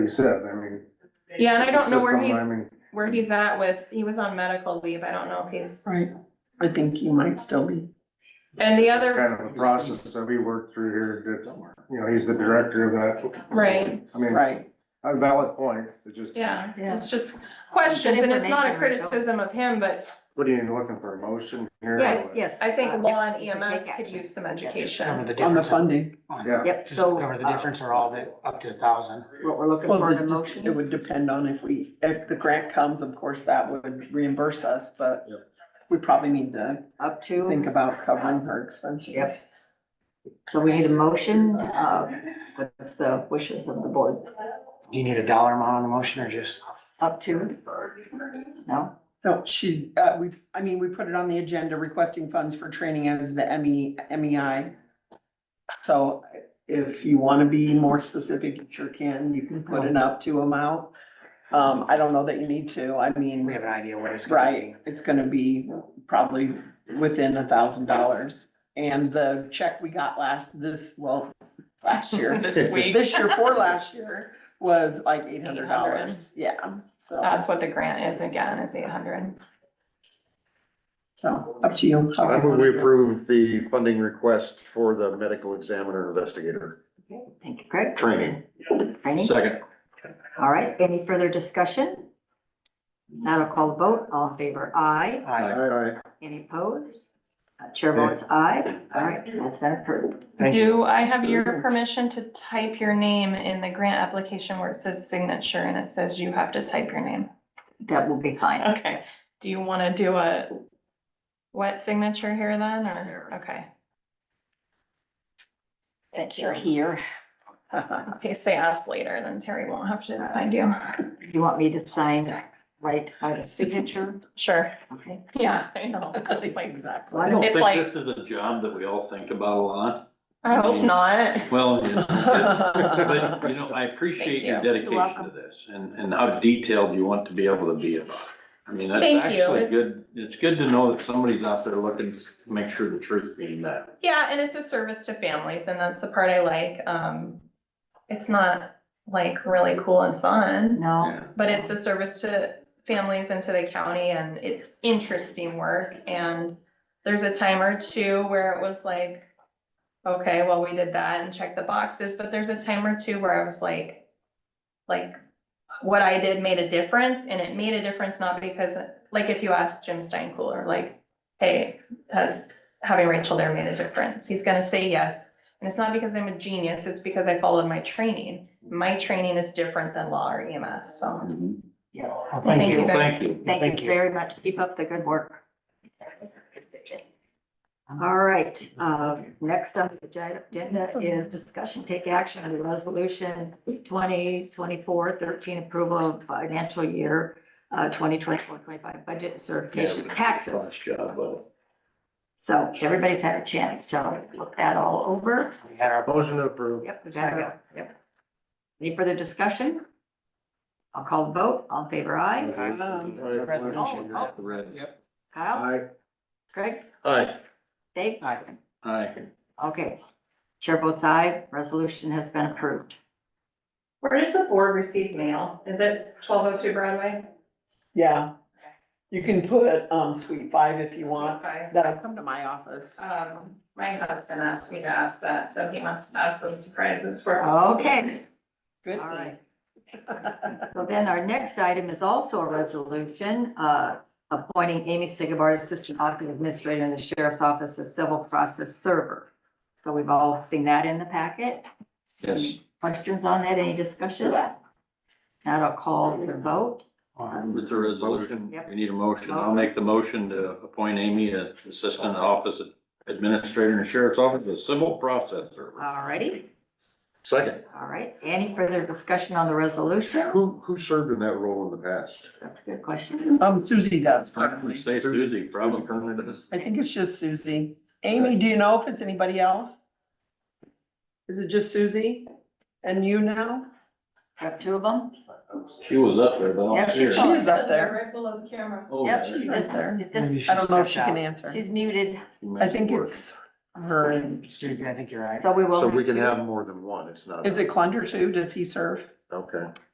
he said, I mean. Yeah, and I don't know where system, I he's- mean, where he's at with, he was on medical leave, I don't know if he's, Right, I think you might still be. and the It's other, kind of a process that we worked through here, that, you know, he's the director of that. Right. I mean, Right. a valid point, it just, yeah, Yeah. it's just questions, and it's not a information, I don't- criticism of him, but what are you looking for, a motion here? Yes, yes. I uh, think law and it's a big EMS could action. use some Just cover education. the On the difference, funding. Yeah, Yep, just cover so the difference or all the, up to a thousand. what we're looking Well, for in it a just, it motion. would depend on if we, if the grant comes, of course, that would reimburse us, but Yep. we probably need to up think to, about covering her expenses. yep. So we need a motion, uh, what's the wishes of the board? Do you need a dollar amount on the motion or just? Up to? No? No, she, uh, we, I mean, we put it on the agenda requesting funds for training as the E, ME, MEI. So if you wanna be more specific, you sure can, you can put an up to amount. Um, I don't know that you need to, I mean. We have an idea what it's gonna be. Right, it's gonna be probably within a thousand dollars. And the check we got last, this, well, last year, This week, this year for last year was like eight hundred dollars, 800. yeah. So, that's what the grant is again, is eight hundred. so up to you. how I move you we wanna do it. approve the funding request for the medical examiner investigator Okay, Thank you, Craig. training. Training. All right, any further discussion? That'll call the vote, all in favor, aye. Aye. Aye, Any opposed? Uh, Chair votes aye. All right, that's that approved. Thank you. Do I have your permission to type your name in the grant application where it says signature and it says you have to type your name? That will be fine. Okay, do you wanna do a wet signature here then, or, okay, Since you're here. in case they ask later, then Terry won't have to find you. You want me to sign, right, by the signature? Sure, Okay. yeah, I know, just like, Exactly. Well, I I don't, don't It's like- think this is a job that we all think about a lot. I hope not. Well, it- it- but, you know, I appreciate your Thank you. dedication to welcome. this and, and how detailed you want to be able to be about it. I mean, that's Thank you. actually It's- good. It's good to know that somebody's out there looking to make sure the truth being met. Yeah, and it's a service to families, and that's the part I like. Um, it's not like really cool and fun, no. but it's a service to families and to the county, and it's interesting work. And there's a time or two where it was like, okay, well, we did that and checked the boxes, but there's a time or two where I was like, like, what I did made a difference, and it made a difference not because, like, if you ask Jim Steinkooler, like, hey, has having Rachel there made a difference. He's gonna say yes. And it's not because I'm a genius, it's because I followed my training. My training is different than law or EMS, so Mm-hmm. Yeah. Well, Thank you, guys. Thank you. Thank you very much. Keep up the good work. All right, uh, next on the agi- agenda is discussion, take action on the resolution 2024-13 approval of financial year uh, 2024-25 budget and certification of taxes. Nice job, buddy. So everybody's had a chance to look that all over. We had our, motion to approve. Yep, we got it. Yep. Any further discussion? I'll call the vote. All in favor, aye. Um, Aye. Resolution. Aye. The red. Kyle, Craig, Aye, Dave? Aye. Aye. Okay. Chair votes aye, resolution has been approved. where does the board receive mail? Is it twelve oh two Broadway? Yeah, you can put, um, suite five if you want, Okay. that'll come to my office. Um, my husband asked me to ask that, so he must have some surprises for. Okay, Good all right. thing. So then our next item is also a resolution, uh, appointing Amy Sigabar, Assistant Office Administrator in the Sheriff's Office as Civil Process Server. So we've all seen that in the packet. Yes. Questions on that, any discussion? Now I'll call the vote. With the resolution, Yep. we need a motion. I'll make the motion to appoint Amy as Assistant Office Administrator in the Sheriff's Office, a civil process server. All righty, second. all right. Any further discussion on the resolution? Who, who served in that role in the past? That's a good question. Um, Susie does Probably currently. say Suzie, probably currently does. I think it's just Susie. Amy, do you know if it's anybody else? Is it just Susie and you now? Have two of them? She was up there, but Yeah, I'm she's- here. She Oh, is up there. Right below the camera. Oh, Yep, yeah. she's right just, there. she's just, maybe I don't know if stepped she can out. answer. she's muted, I think it's her and, Susie, I think you're right. so we will. So we can to- have more than one, it's not. is it Clunder too? Does he serve? Okay.